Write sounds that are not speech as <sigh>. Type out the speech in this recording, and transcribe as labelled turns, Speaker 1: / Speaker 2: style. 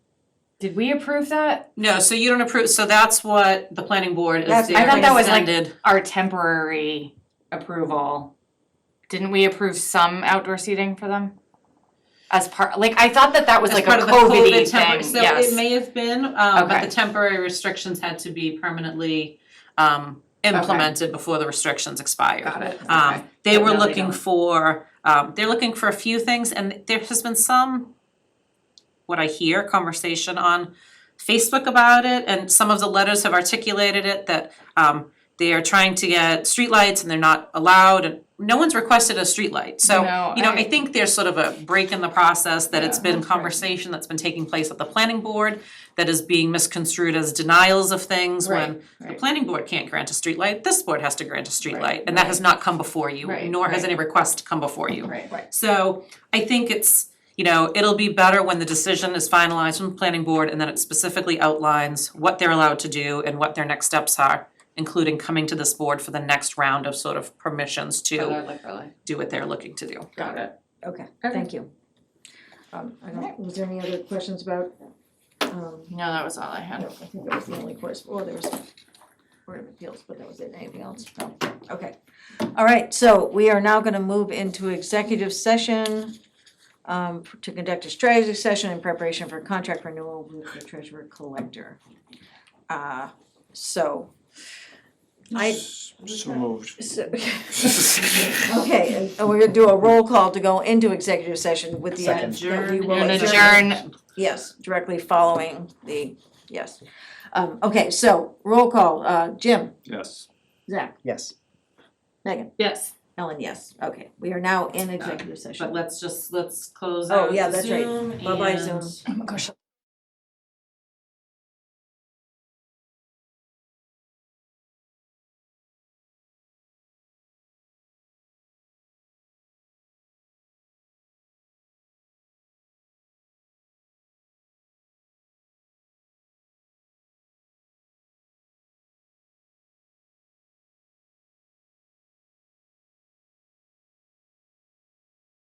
Speaker 1: Did we approve that?
Speaker 2: No, so you don't approve, so that's what the planning board is
Speaker 3: That's-
Speaker 2: there
Speaker 1: I thought that was like
Speaker 2: extended.
Speaker 1: our temporary approval. Didn't we approve some outdoor seating for them? As part, like, I thought that that was
Speaker 2: As
Speaker 1: like
Speaker 2: part
Speaker 1: a
Speaker 2: of the COVID
Speaker 1: COVID thing,
Speaker 2: temporary, so it
Speaker 1: yes.
Speaker 2: may have been, um, but
Speaker 1: Okay.
Speaker 2: the temporary restrictions had to be permanently, um, implemented before the restrictions expired.
Speaker 3: Got it, okay.
Speaker 2: Um, they
Speaker 3: But
Speaker 2: were
Speaker 3: now they
Speaker 2: looking
Speaker 3: don't.
Speaker 2: for, um, they're looking for a few things and there has been some, what I hear, conversation on Facebook about it and some of the letters have articulated it that, um, they are trying to get streetlights and they're not allowed and no one's requested a streetlight. So,
Speaker 1: No,
Speaker 2: you know,
Speaker 1: I-
Speaker 2: I think there's sort of a break in the process that it's
Speaker 3: Yeah,
Speaker 2: been
Speaker 3: that's right.
Speaker 2: conversation that's been taking place at the planning board that is being misconstrued as denials of things when
Speaker 3: Right,
Speaker 2: the
Speaker 3: right.
Speaker 2: planning board can't grant a streetlight, this board has to grant a streetlight,
Speaker 3: Right,
Speaker 2: and that has not come before you,
Speaker 3: Right,
Speaker 2: nor has
Speaker 3: right.
Speaker 2: any request come before you.
Speaker 3: Right, right.
Speaker 2: So I think it's, you know, it'll be better when the decision is finalized from the planning board and then it specifically outlines what they're allowed to do and what their next steps are, including coming to this board for the next round of sort of permissions to do what they're looking to do.
Speaker 3: Got it.
Speaker 4: Okay, thank you. Um, I don't, was there any other questions about, um,
Speaker 1: No, that was all I
Speaker 4: I
Speaker 1: had.
Speaker 4: don't, I think that was the only course, well, there was Board of Appeals, but that was it, anything else? No, okay. All right, so we are now gonna move into executive session um, to conduct a strategy session in preparation for contract renewal with the treasurer collector. Uh, so, I,
Speaker 5: So
Speaker 4: <laughs>
Speaker 5: moved.
Speaker 4: so, okay, and- and we're gonna do a roll call to go into executive session with the.
Speaker 5: Second.
Speaker 4: that we will
Speaker 1: We're gonna
Speaker 4: adjourn.
Speaker 1: adjourn,
Speaker 4: Yes, directly following the, yes. Um, okay, so roll call, uh, Jim,
Speaker 5: Yes.
Speaker 4: Zach,
Speaker 5: Yes.
Speaker 4: Megan,
Speaker 2: Yes.
Speaker 4: Ellen, yes, okay, we are now in executive
Speaker 2: But
Speaker 4: session.
Speaker 2: let's just, let's close
Speaker 4: Oh,
Speaker 2: out
Speaker 4: yeah, that's right.
Speaker 2: Zoom
Speaker 4: Bye-bye
Speaker 2: and-
Speaker 4: Zoom.
Speaker 1: oh my gosh,